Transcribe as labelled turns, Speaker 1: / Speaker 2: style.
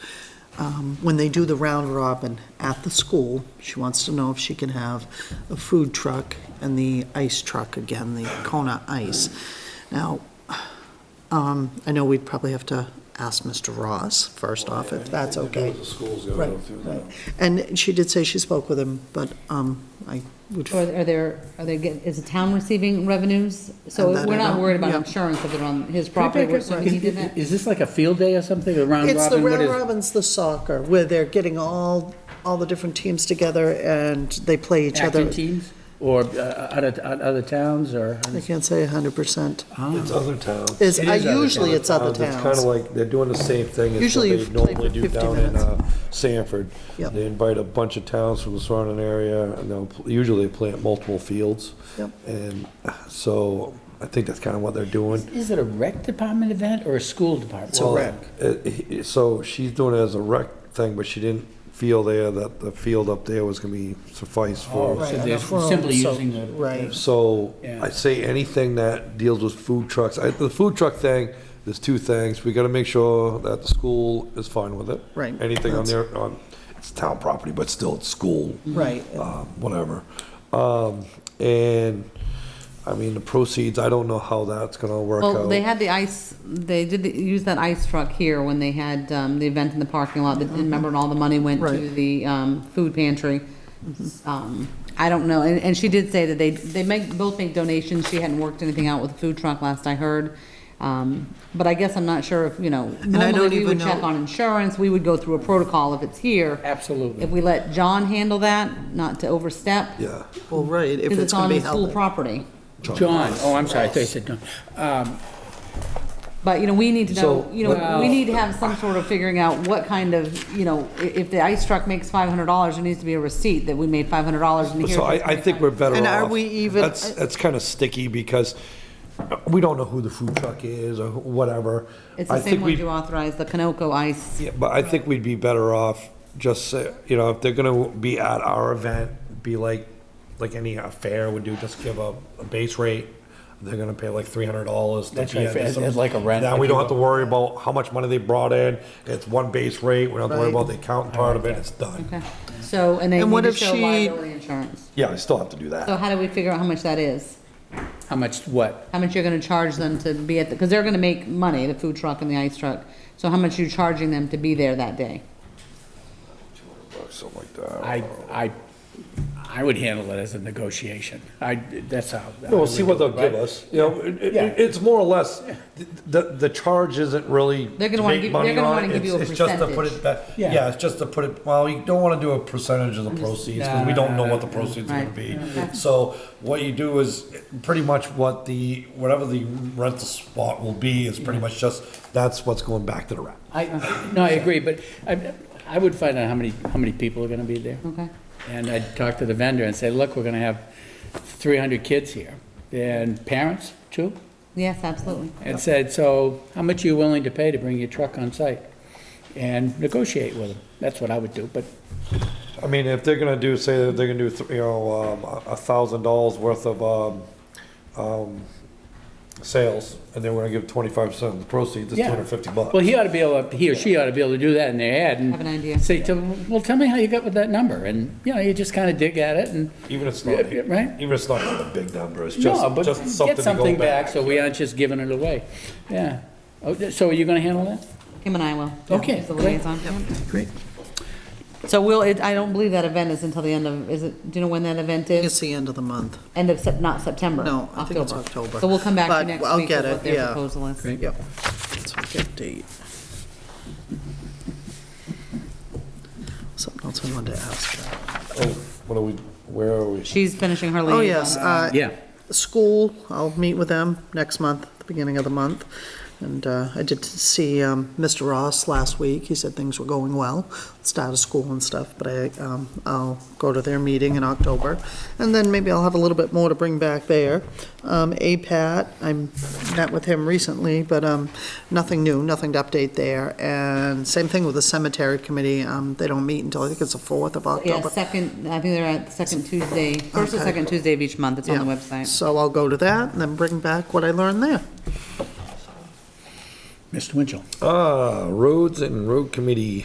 Speaker 1: um, when they do the round robin at the school, she wants to know if she can have a food truck and the ice truck again, the Kona Ice. Now, um, I know we'd probably have to ask Mr. Ross first off, if that's okay.
Speaker 2: The school's gotta
Speaker 1: Right,
Speaker 2: go through
Speaker 1: right.
Speaker 2: that.
Speaker 1: And she did say she spoke with him, but um, I would,
Speaker 3: Or are there, are they, get- is the town receiving revenues? So
Speaker 1: And that I
Speaker 3: we're not
Speaker 1: don't-
Speaker 3: worried about
Speaker 1: yeah.
Speaker 3: insurance if it's on his property,
Speaker 1: take
Speaker 3: we're
Speaker 1: it,
Speaker 3: assuming
Speaker 1: right.
Speaker 3: he did that?
Speaker 4: Is this like a field day or something, a round
Speaker 1: it's the
Speaker 4: robin? What
Speaker 1: Round
Speaker 4: is-
Speaker 1: Robin's, the soccer, where they're getting all, all the different teams together and they play each other.
Speaker 4: Acting teams? Or uh, other, other towns or?
Speaker 1: I can't say 100%.
Speaker 4: Ah.
Speaker 2: It's other towns. Oh,
Speaker 1: It's,
Speaker 4: It
Speaker 1: I-
Speaker 4: is other
Speaker 1: usually
Speaker 4: towns.
Speaker 1: it's other
Speaker 2: It's kind of
Speaker 1: towns.
Speaker 2: like, they're doing the same thing as what
Speaker 1: Usually
Speaker 2: they
Speaker 1: you play
Speaker 2: normally
Speaker 1: for
Speaker 2: do
Speaker 1: 50
Speaker 2: down in
Speaker 1: minutes.
Speaker 2: uh, Sanford.
Speaker 1: Yep.
Speaker 2: They invite a bunch of towns from the surrounding area, and they'll, pl- usually they plant multiple fields.
Speaker 1: Yep.
Speaker 2: And so I think that's kind of what they're doing.
Speaker 4: Is it a rec department event or a school department?
Speaker 2: Well, it- he- So she's doing it as a rec thing, but she didn't feel there that the field up there was gonna be suffice
Speaker 4: Oh,
Speaker 2: for.
Speaker 4: so
Speaker 1: Right,
Speaker 4: they're
Speaker 1: and a
Speaker 4: simply
Speaker 1: room, so-
Speaker 4: using the.
Speaker 1: right.
Speaker 2: So
Speaker 4: Yeah.
Speaker 2: I say anything that deals with food trucks, I, the food truck thing, there's two things. We gotta make sure that the school is fine with it.
Speaker 1: Right.
Speaker 2: Anything on
Speaker 1: That's- Mm-hmm.
Speaker 2: their, on, it's town property, but still it's school.
Speaker 1: Right.
Speaker 2: Uh, whatever. Um, and, I mean, the proceeds, I don't know how that's gonna work out.
Speaker 3: Well, they had the ice, they did the- use that ice truck here when they had um, the event in the parking lot, that- and remember, and all the money went to
Speaker 1: Right.
Speaker 3: the um, food pantry. Um, I don't know, and, and she did say that they, they make, both make donations, she hadn't worked anything out with the food truck last I heard. Um, But I guess I'm not sure if, you know,
Speaker 1: I don't
Speaker 3: normally we would
Speaker 1: even
Speaker 3: check
Speaker 1: know-
Speaker 3: on insurance, we would go through a protocol if it's here. If
Speaker 4: Absolutely.
Speaker 3: we let John handle that, not to overstep,
Speaker 2: Yeah.
Speaker 1: Well, right, if
Speaker 3: because it's
Speaker 1: it's going
Speaker 3: on
Speaker 1: to be
Speaker 3: the school
Speaker 1: held.
Speaker 3: property.
Speaker 4: John, oh, I'm sorry, I thought you said John. Um,
Speaker 3: But, you know, we need to know,
Speaker 2: So-
Speaker 3: you know, we need to have some sort of figuring out what kind of, you know, i- if the ice truck makes five hundred dollars, there needs to be a receipt that we made five hundred dollars in here.
Speaker 2: So I, I think we're better off.
Speaker 1: And are we even-
Speaker 2: That's, that's kind of sticky because we don't know who the food truck is or who- whatever.
Speaker 3: It's
Speaker 2: I
Speaker 3: the
Speaker 2: think
Speaker 3: same
Speaker 2: we-
Speaker 3: ones you authorized, the Canoco ice.
Speaker 2: Yeah, but I think we'd be better off just, say- you know, if they're gonna be at our event, be like, like any affair would do, just give a, a base rate. They're gonna pay like three hundred dollars.
Speaker 4: That's right, as- as like a rent,
Speaker 2: Now, we
Speaker 4: if
Speaker 2: don't
Speaker 4: you
Speaker 2: have to worry about how much money they brought in. It's one base rate. We don't have to worry
Speaker 1: Right.
Speaker 2: about the accounting part of it. It's done.
Speaker 3: Okay, so, and they
Speaker 1: And what
Speaker 3: need to
Speaker 1: if
Speaker 3: show
Speaker 1: she-
Speaker 3: liability insurance.
Speaker 2: Yeah, I still have to do that.
Speaker 3: So how do we figure out how much that is?
Speaker 4: How much, what?
Speaker 3: How much you're gonna charge them to be at, the? because they're gonna make money, the food truck and the ice truck. So how much you charging them to be there that day?
Speaker 2: Something like that.
Speaker 4: I, I, I would handle it as a negotiation. I, that's how.
Speaker 2: Yeah, We'll see what they'll
Speaker 4: Right?
Speaker 2: give us, you know, it- it-
Speaker 4: Yeah.
Speaker 2: it's more or less, th- the, the charge isn't really
Speaker 3: They're gonna
Speaker 2: to
Speaker 3: wanna
Speaker 2: make
Speaker 3: give-
Speaker 2: money
Speaker 3: they're gonna
Speaker 2: on
Speaker 3: wanna
Speaker 2: it.
Speaker 3: give you
Speaker 2: It's-
Speaker 3: a
Speaker 2: it's just to put
Speaker 3: percentage.
Speaker 2: it back-
Speaker 4: Yeah.
Speaker 2: Yeah, it's just to put it, well, you don't wanna do a percentage of the proceeds, cause we don't know what the proceeds are gonna
Speaker 3: Right.
Speaker 2: be. So what you do is, pretty much what the, whatever the rental spot will be is pretty much just, that's what's going back to the rent.
Speaker 4: I, no, I agree, but I, I would find out how many, how many people are gonna be
Speaker 1: Hmm.
Speaker 4: there.
Speaker 3: Okay.
Speaker 4: And I'd talk to the vendor and say, look, we're gonna have three hundred kids here, and parents, too.
Speaker 3: Yes, absolutely.
Speaker 4: and said, so how much are you willing to pay to bring your truck on site? And negotiate with them. That's what I would do, but
Speaker 2: I mean, if they're gonna do, say that they're gonna do, th- you know, um, a- a thousand dollars worth of, um, um, sales, and they're gonna give twenty-five percent of the proceeds, it's two
Speaker 4: Yeah.
Speaker 2: hundred and fifty bucks.
Speaker 4: Well, he ought to be able, to- he or she ought to be able to do that in their head and.
Speaker 3: Have an idea.
Speaker 4: Say, to them, well, tell me how you got with that number, and, you know, you just kind of dig at it and.
Speaker 2: Even if it's
Speaker 4: Yeah,
Speaker 2: not,
Speaker 4: yeah, right.
Speaker 2: even if it's not a big number, it's
Speaker 4: No,
Speaker 2: just,
Speaker 4: but
Speaker 2: just something
Speaker 4: get
Speaker 2: to
Speaker 4: something
Speaker 2: go
Speaker 4: back,
Speaker 2: back.
Speaker 4: so we aren't just giving it away, yeah. Oh, th- So are you gonna handle that?
Speaker 3: Kim and I will.
Speaker 4: Okay,
Speaker 3: As the
Speaker 4: great.
Speaker 3: liaison.
Speaker 4: Great.
Speaker 3: So we'll, it- I don't believe that event is until the end of, is it, do you know when that event is?
Speaker 1: It's the end of the month.
Speaker 3: End of Sep, not September?
Speaker 1: No, I think it's October.
Speaker 3: So we'll come back to you
Speaker 1: But
Speaker 3: next
Speaker 1: I'll
Speaker 3: week
Speaker 1: get
Speaker 3: with what
Speaker 1: it,
Speaker 3: their
Speaker 1: yeah.
Speaker 3: proposal is.
Speaker 4: Great.
Speaker 1: Yep. It's a good date. Something else I wanted to ask.
Speaker 2: Oh, What are we, where are we?
Speaker 3: She's finishing her liaison.
Speaker 1: Oh, yes, uh,
Speaker 4: Yeah,
Speaker 1: school, I'll meet with them next month, the beginning of the month. And uh, I did see um, Mr. Ross last week. He said things were going well, start of school and stuff, but I, um, I'll go to their meeting in October. And then maybe I'll have a little bit more to bring back there. Um, APAT, I met with him recently, but um, nothing new, nothing to update there. And same thing with the cemetery committee. Um, They don't meet until, I think it's the 4th of
Speaker 3: Yeah,
Speaker 1: October.
Speaker 3: second, I think they're at the second Tuesday, first or
Speaker 1: Okay.
Speaker 3: second Tuesday of each month. It's on the
Speaker 1: Yeah.
Speaker 3: website.
Speaker 1: So I'll go to that and then bring back what I learned there.
Speaker 4: Mr. Winchell.
Speaker 2: Ah, roads and road committee.